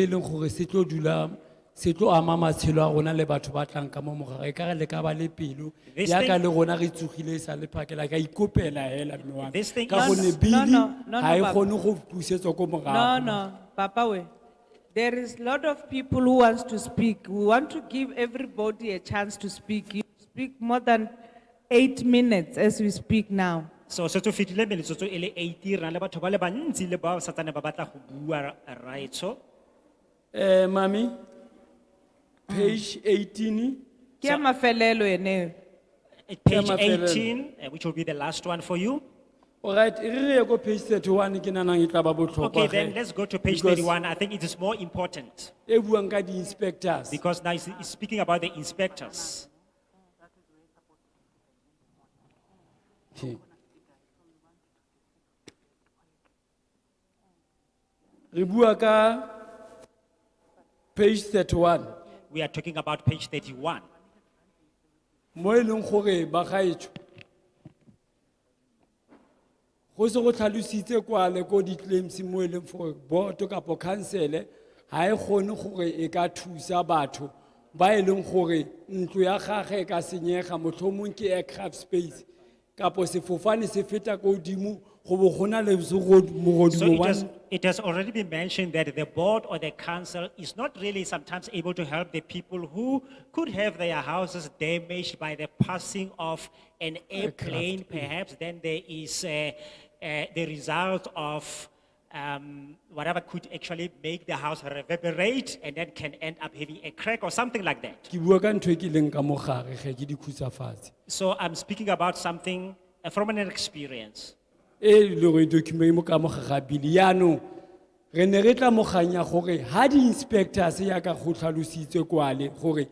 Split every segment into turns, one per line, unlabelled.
e leng gore se tlo dula se tlo ama matshelo a rona le batho ba tlang ka mo morago e ka re le ka ba le pelo
This
yaka
thing-
le rona re tsogile e sa le phakela ka ikopela hela mme wa
This
me.
thing
ka
is-
gonne
No,
bili
no, no, no,
ga e
Papa.
kgone go pusetswa ko morago
No, no, Papa we. There is lot of people who wants to speak. We want to give everybody a chance to speak. You speak more than eight minutes as we speak now.
So se to fitile metsotso e le 80 rena le batho ba le bantsi le bao satsane ba batla go bua raitso.
Eh, mami, page eighteen,
Kia mafelelo ene.
Page
Ema felele.
18, eh, which will be the last one for you.
alright, e re ye ko page thirty-one, ke nanang e tla ba botlhokwa
Okay, then
ge.
let's go to page
Because
thirty-one. I think it is more important
E buang ka di-inspectors,
because now it's it's speaking about the inspectors.
Okay. Re bua ka page thirty-one,
We are talking about page thirty-one.
mo e leng gore bagaetsho. Go se go tlhalositse kwale ko di-claims mo e leng gore boto kapo council-e ga e kgone gore e ka thusa batho ba e leng gore ntlo ya gagwe e ka senyega motlhomong ke aircraft space kapo sefofane se feta ko godimo go bo go na le zero-
So
mogodumo
it
wa
has, it has already been mentioned that the board or the council is not really sometimes able to help the people who could have their houses damaged by the passing of an airplane perhaps, then there is uh, uh, the result of um, whatever could actually make the house reverberate and then can end up having a crack or something like that.
ke bua ka ntho e ke leng ka mogare ge ke dikhutsafatse
So I'm speaking about something uh, from an experience.
e e le gore document mo ka mogare ga bili yaanong re ne re tla moganya gore ga di-inspectors yaka go tlhalositse kwale gore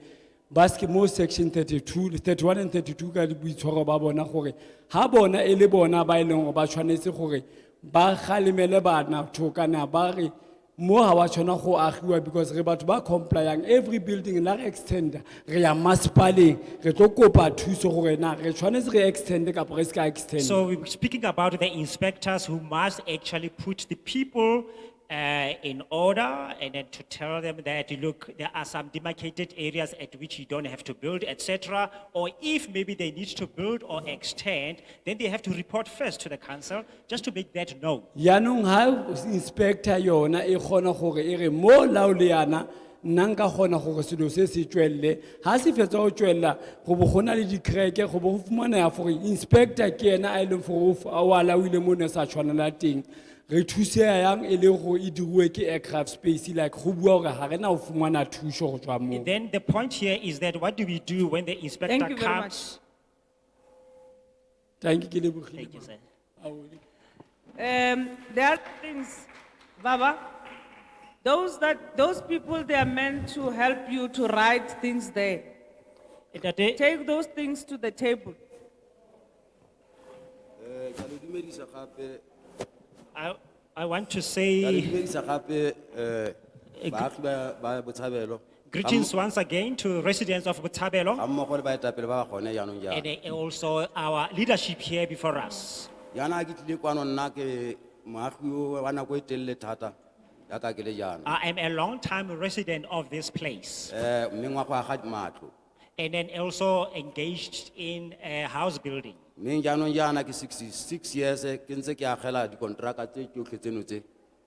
baske mo section 32 31 and 32 ka boitshwaro ba bona gore ga bona e le bona ba e leng gore ba tshwanetse gore ba galemele batho kana ba re mo ga wa tshwana go agiwa because re batho ba complyang every building la re extenda re ya masepaleng re tlo kopa thuso gore na re tshwanetse re extende kapo re se ka extenda
So we we're speaking about the inspectors who must actually put the people uh, in order and then to tell them that, look, there are some demarcated areas at which you don't have to build, etc. Or if maybe they need to build or extend, then they have to report first to the council just to make that known.
yaanong ga inspector yona e kgona gore e re mo lao le yana nna nka kgona gore selo se se tswelele ga se fetsa go tswelela go bo go na le dikreke go bo go fumanaya gore inspector ke ena a e leng gore o f- o a laoile mo o ne o sa tshwanela teng re thusea yang e le gore e diriwe ke aircraft space like go bua gore ga re na go fumana thuso go tswa moo
Then the point here is that what do we do when the inspector
Thank you very much.
comes?
tanke ke lebogile
Thank you, sir.
Um, there are things, Baba, those that, those people, they are meant to help you to write things there.
Ntate,
Take those things to the table.
Eh, ka le dumedisa gape,
I, I want to
ka le
say
dumedisa gape, eh, baagi ba- ba Botshabelo,
greetings once again to residents of Botshabelo.
ga mmogo le baetapele ba ba gone jaanong
and
jaana.
eh, also our leadership here before us.
Jaana ha ke tlile kwano nna ke moagi o wa nako e telele thata, jaaka ke le jaana.
I am a long-time resident of this place
Eh, mme ngwaga wa ga matlo.
and then also engaged in eh, house building.
Mme jaanong jaana ke sixty-six years, eh, ke ntse ke agela dikonteraka tse tsotlhe tseno tse,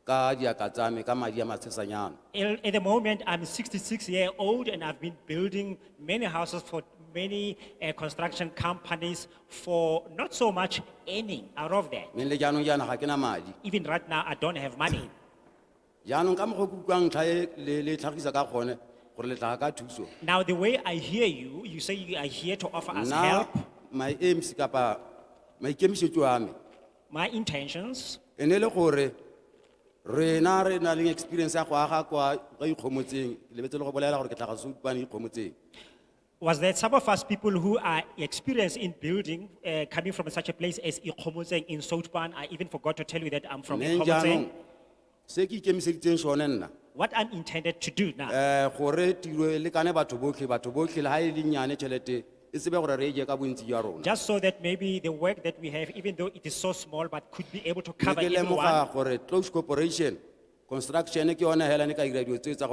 ka diaka tsa me, ka madi a matshesanyana.
El- At the moment, I'm 66 year old and I've been building many houses for many eh, construction companies for not so much earning out of that.
Mme le jaanong jaana ga ke na madi.
Even right now, I don't have money.
Jaanong ka mokgwa o ke utlwang ntlha e le- le tlhagisa ka gone, gore le tla ka thuso.
Now, the way I hear you, you say you are here to offer us
Now,
help.
my aims kapa, my kemisetu ame,
My intentions
enele gore, re na re na le experience ya kwaha kwa, kwa ikomotseng, lebetse le go bolela gore ke tla go se utlwane ikomotseng.
was that some of us people who are experienced in building, uh, coming from such a place as Ikomozeng in Southban, I even forgot to tell you that I'm from
Mme jaanong,
Ikomozeng.
Se ki kemiseditseng sone nna,
What I'm intended to do now,
eh, gore tiro e lekane batho botlhe, batho botlhe le ha e le nyane tšhelete, e tsebe gore re e je ka bontsi jwa rona.
just so that maybe the work that we have, even though it is so small, but could be able to
Mme
cover
ke
everyone.
lemoga gore close corporation, construction ke yona hela ne ka dira dilo tse tsa go